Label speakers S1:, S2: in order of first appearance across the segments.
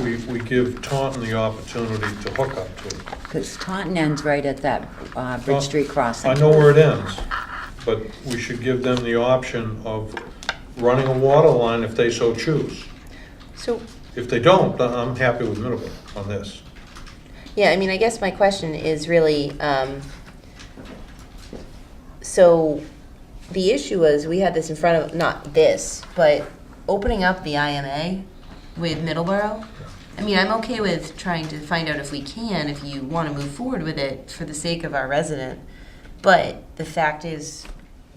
S1: we, we give Taunton the opportunity to hook up to it.
S2: Because Taunton ends right at that uh, Bridge Street crossing.
S1: I know where it ends, but we should give them the option of running a water line if they so choose.
S3: So,
S1: If they don't, then I'm happy with Middleborough on this.
S3: yeah, I mean, I guess my question is really, um, so the issue was, we had this in front of, not this, but opening up the IMA with Middleborough. I mean, I'm okay with trying to find out if we can, if you want to move forward with it for the sake of our resident. But the fact is,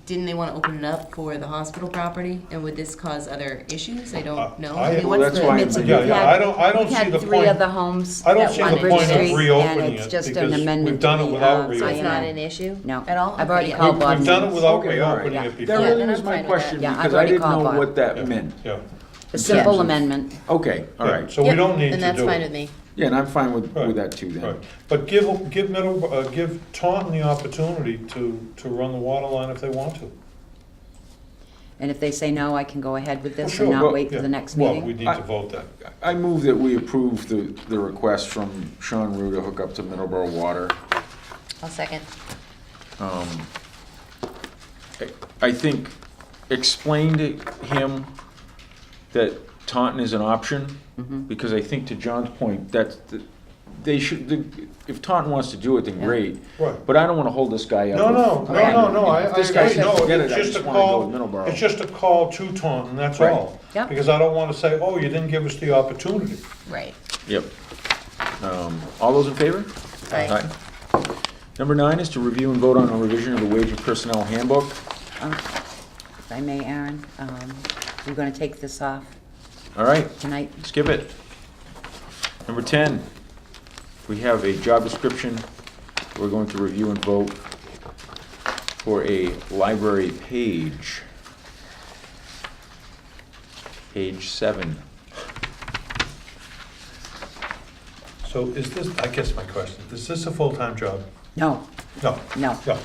S3: didn't they want to open it up for the hospital property? And would this cause other issues? I don't know.
S1: I-
S3: I mean,
S1: well,
S3: what's
S4: that's
S3: the-
S4: why-
S2: It's-
S4: Yeah,
S2: we've
S1: yeah,
S2: had-
S1: I don't- I don't see the
S2: We've had three
S1: point-
S2: other homes
S1: I
S2: that
S1: don't see
S2: want
S1: the
S2: Bridge
S1: point
S2: Street,
S1: of
S2: and
S1: reopening
S2: it's
S1: it
S2: just
S1: because
S2: an
S1: we've
S2: amendment to
S1: done it
S2: the,
S1: without
S2: uh,
S3: So it's not
S1: reopening.
S2: IMA.
S3: an issue?
S2: No,
S3: At all?
S2: I've already
S3: Okay.
S2: called Bob.
S1: We've done it
S2: Means.
S1: without
S4: Okay, all right.
S1: reopening it
S4: That
S1: before.
S3: Yeah,
S4: really
S3: and
S4: was
S3: I'm
S4: my
S3: fine with
S4: question,
S2: that. Yeah, I've
S4: because I
S2: already
S4: didn't know
S2: called Bob.
S4: what that meant.
S1: Yeah,
S2: A simple
S4: Yeah.
S2: amendment.
S4: Okay, all
S1: yeah,
S4: right.
S1: so we
S3: Yep,
S1: don't need to do it.
S3: And that's fine with me.
S4: Yeah, and I'm fine with,
S1: Right,
S4: with that too then.
S1: right. But give, give Middle, uh, give Taunton the opportunity to, to run the water line if they want to.
S2: And if they say no, I can go ahead with this
S1: Oh, Sure,
S2: and not
S4: well,
S2: wait for
S1: Yeah.
S2: the next
S1: Well, we
S2: meeting?
S1: need to vote that.
S4: I move that we approve the, the request from Sean Rue to hook up to Middleborough Water.
S3: I'll second.
S4: Um, I- I think, explain to him that Taunton is an option,
S2: Mm-hmm.
S4: because I think to John's point, that's, the- they should, the- if Taunton wants to do it, then great.
S1: Right.
S4: But I don't wanna hold this guy up.
S1: No, no, no, no, no, I, I,
S4: If
S1: I
S4: This guy
S1: agree.
S4: says
S1: no,
S4: forget it,
S1: it's
S4: I
S1: just a
S4: just wanna go
S1: call,
S4: to Middleborough.
S1: it's just a call to Taunton, that's
S4: Right.
S1: all.
S2: Yep.
S1: Because I don't wanna say, oh, you didn't give us the opportunity.
S3: Right.
S4: Yep. Um, All those in favor?
S3: Aye.
S4: Number nine is to review and vote on a revision of the wage and personnel handbook.
S2: Um, If I may, Aaron, um, we're going to take this off
S4: All right,
S2: tonight.
S4: skip it. Number 10, we have a job description. We're going to review and vote for a library page. Page seven.
S1: So is this, I guess my question, is this a full-time job?
S2: No,
S1: No,
S2: no.
S1: no,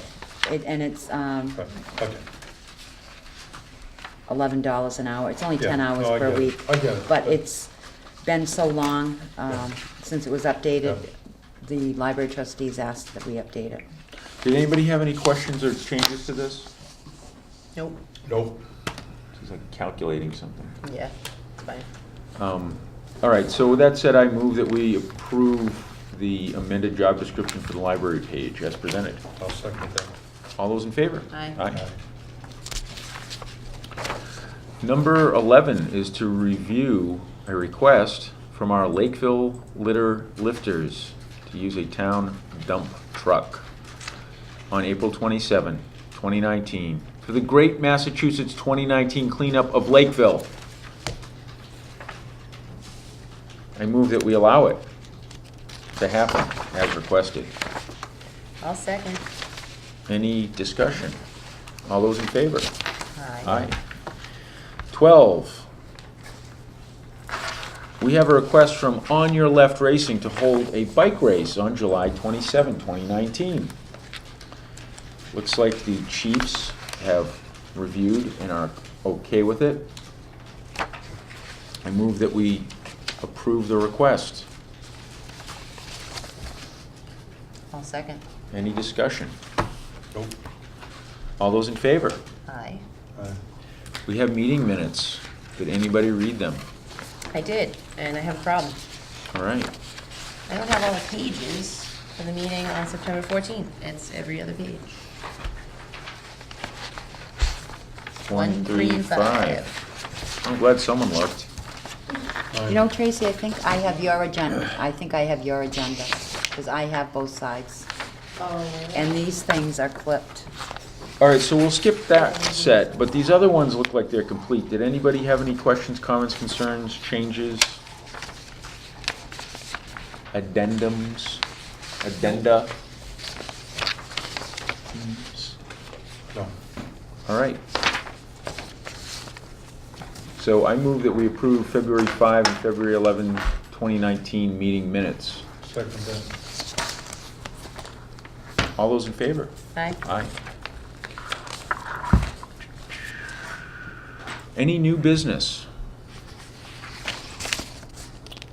S2: It- And it's um,
S1: right, okay.
S2: $11 an hour. It's only 10
S1: Yeah,
S2: hours
S1: no, I
S2: per
S1: get it,
S2: week.
S1: I get it.
S2: But it's been so long um, since it was updated,
S1: Yeah.
S2: the library trustees asked that we update it.
S4: Did anybody have any questions or changes to this?
S3: Nope.
S1: Nope.
S4: She's like calculating something.
S3: Yeah, it's fine.
S4: Um, All right, so with that said, I move that we approve the amended job description for the library page as presented.
S1: I'll second that.
S4: All those in favor?
S3: Aye.
S4: Aye. Number 11 is to review a request from our Lakeville litter lifters to use a town dump truck on April 27, 2019, for the Great Massachusetts 2019 cleanup of Lakeville. I move that we allow it to happen as requested.
S3: I'll second.
S4: Any discussion? All those in favor?
S3: Aye.
S4: Aye. Twelve. We have a request from On Your Left Racing to hold a bike race on July 27, 2019. Looks like the Chiefs have reviewed and are okay with it. I move that we approve the request.
S3: I'll second.
S4: Any discussion?
S1: Nope.
S4: All those in favor?
S3: Aye.
S1: Aye.
S4: We have meeting minutes. Did anybody read them?
S3: I did, and I have a problem.
S4: All right.
S3: I don't have all the pages for the meeting on September 14th. It's every other page.
S4: One, three, five. I'm glad someone looked.
S2: You know, Tracy, I think I have your agenda. I think I have your agenda, because I have both sides. And these things are clipped.
S4: All right, so we'll skip that set, but these other ones look like they're complete. Did anybody have any questions, comments, concerns, changes? Addendums? Addenda?
S1: No,
S4: All right. So I move that we approve February 5 and February 11, 2019 meeting minutes.
S1: second that.
S4: All those in favor?
S3: Aye.
S4: Aye. Any new business?